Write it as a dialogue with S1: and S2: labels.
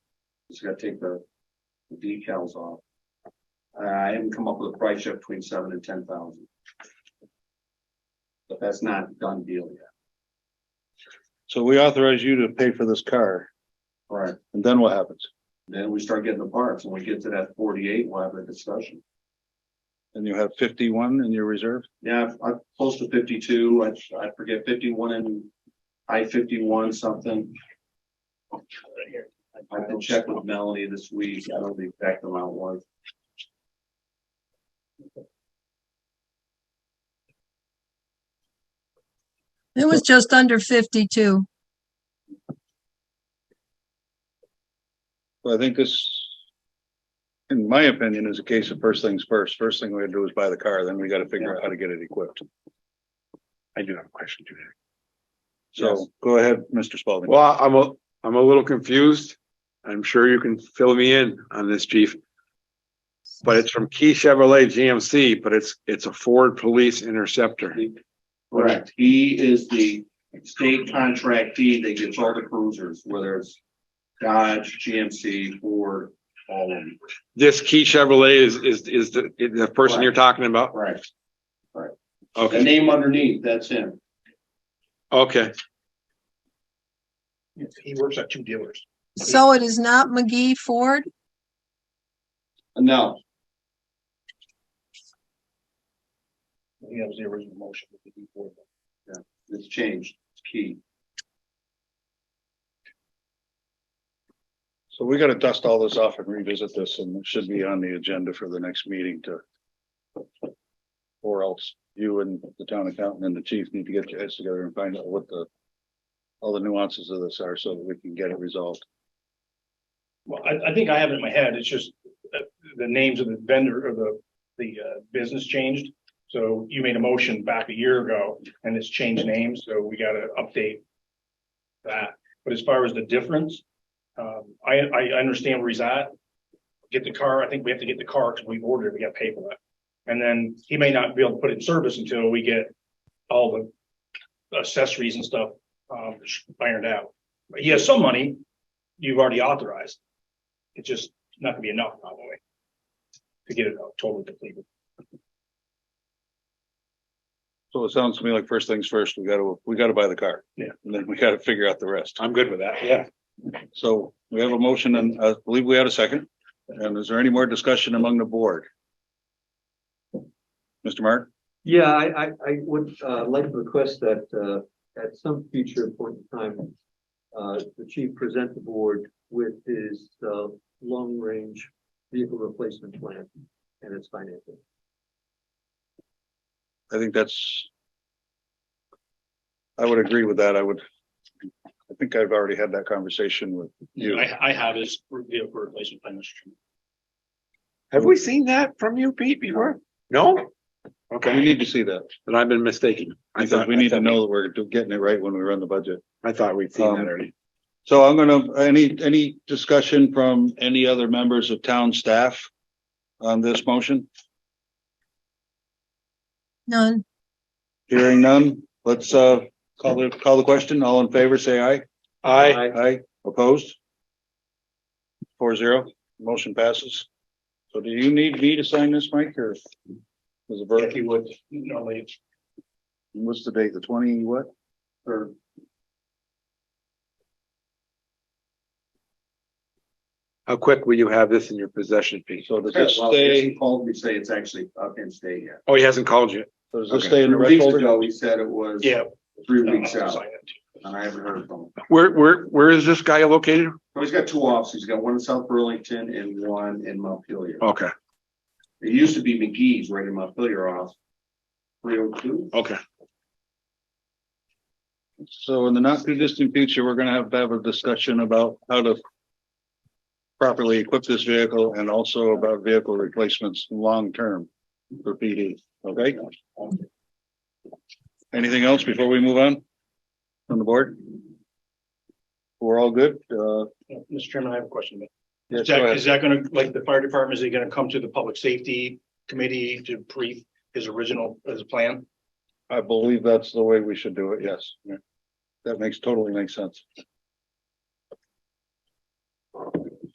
S1: Just gotta take the the decals off. Uh, I haven't come up with a price yet between seven and ten thousand. But that's not a done deal yet.
S2: So we authorize you to pay for this car
S1: Right.
S2: and then what happens?
S1: Then we start getting the parts. When we get to that forty-eight, we'll have a discussion.
S2: And you have fifty-one in your reserve?
S1: Yeah, I've- I'm close to fifty-two. I, I forget fifty-one and I fifty-one something. I can check with Melanie this week. I don't know the exact amount was.
S3: It was just under fifty-two.
S2: So I think this, in my opinion, is a case of first things first. First thing we gotta do is buy the car, then we gotta figure out how to get it equipped.
S4: I do have a question to that.
S2: So go ahead, Mr. Spalding.
S4: Well, I'm a, I'm a little confused. I'm sure you can fill me in on this, chief. But it's from Key Chevrolet GMC, but it's, it's a Ford Police Interceptor.
S1: Correct. He is the state contractee that gets all the cruisers, whether it's Dodge, GMC, Ford, all of them.
S4: This Key Chevrolet is, is, is the, is the person you're talking about?
S1: Right. The
S4: Okay,
S1: name underneath, that's him.
S4: okay.
S5: He works at two dealers.
S3: So it is not McGee Ford?
S1: No,
S5: He was the original motion. with the before.
S1: it's changed. It's key.
S2: So we gotta dust all this off and revisit this and it should be on the agenda for the next meeting to. Or else you and the town accountant and the chief need to get your heads together and find out what the. All the nuances of this are so that we can get it resolved.
S5: Well, I, I think I have it in my head. It's just uh, the names of the vendor or the, the uh, business changed. So you made a motion back a year ago and it's changed names, so we gotta update that. But as far as the difference, um, I, I understand where he's at. Get the car. I think we have to get the car because we've ordered it. We gotta pay for that. And then he may not be able to put it in service until we get all the accessories and stuff, um, ironed out. But he has some money, you've already authorized. It's just not gonna be enough probably. To get it out totally depleted.
S2: So it sounds to me like first things first, we gotta, we gotta buy the car.
S5: Yeah.
S2: And then we gotta figure out the rest.
S4: I'm good with that. Yeah.
S2: So we have a motion and uh, I believe we had a second. And is there any more discussion among the board? Mr. Mark?
S6: Yeah, I, I, I would, uh, like to request that, uh, at some future point in time, uh, the chief present the board with his, uh, long-range vehicle replacement plan and its financing.
S2: I think that's. I would agree with that. I would. I think I've already had that conversation with you.
S5: I, I have his vehicle replacement plan, Mr. Chairman.
S4: Have we seen that from you, Pete, before? No?
S2: We
S4: Okay,
S2: need to see that.
S4: then I've been mistaken. I
S2: because
S4: thought,
S2: we need to know Um, that we're do- getting it right when we run the budget.
S4: I thought we'd seen that already.
S2: So I'm gonna, any, any discussion from any other members of town staff on this motion?
S3: None.
S2: Hearing none, let's, uh, call the, call the question. All in favor, say aye.
S4: I,
S2: Aye, opposed? Four zero, motion passes. So do you need me to sign this, Mike, or? Was it
S5: If
S2: Burke?
S5: he would, normally it's
S2: What's the date, the twenty, what?
S1: Or
S4: how quick will you have this in your possession, Pete?
S2: So does this
S1: well,
S2: stay,
S1: he called me, say it's actually up in state yet.
S4: Oh, he hasn't called you.
S2: so does this
S4: Okay.
S2: stay in the
S1: Weeks
S2: register?
S1: ago, he said it was
S5: Yeah.
S1: three
S5: I'll
S1: weeks out
S5: sign it.
S1: and I haven't heard from him.
S4: Where, where, where is this guy located?
S1: So he's got two offices. He's got one in South Burlington and one in Montpelier.
S4: Okay,
S1: It used to be McGee's right in Montpelier off three oh two.
S4: okay.
S2: So in the not too distant future, we're gonna have to have a discussion about how to properly equip this vehicle and also about vehicle replacements long-term for PD, okay? Anything else before we move on? From the board? We're all good, uh,
S5: Yeah, Mr. Chairman, I have a question.
S2: yes,
S5: Is
S2: go
S5: that,
S2: ahead.
S5: is that gonna, like, the fire department, is he gonna come to the public safety committee to brief his original, his plan?
S2: I believe that's the way we should do it, yes. That makes totally makes sense.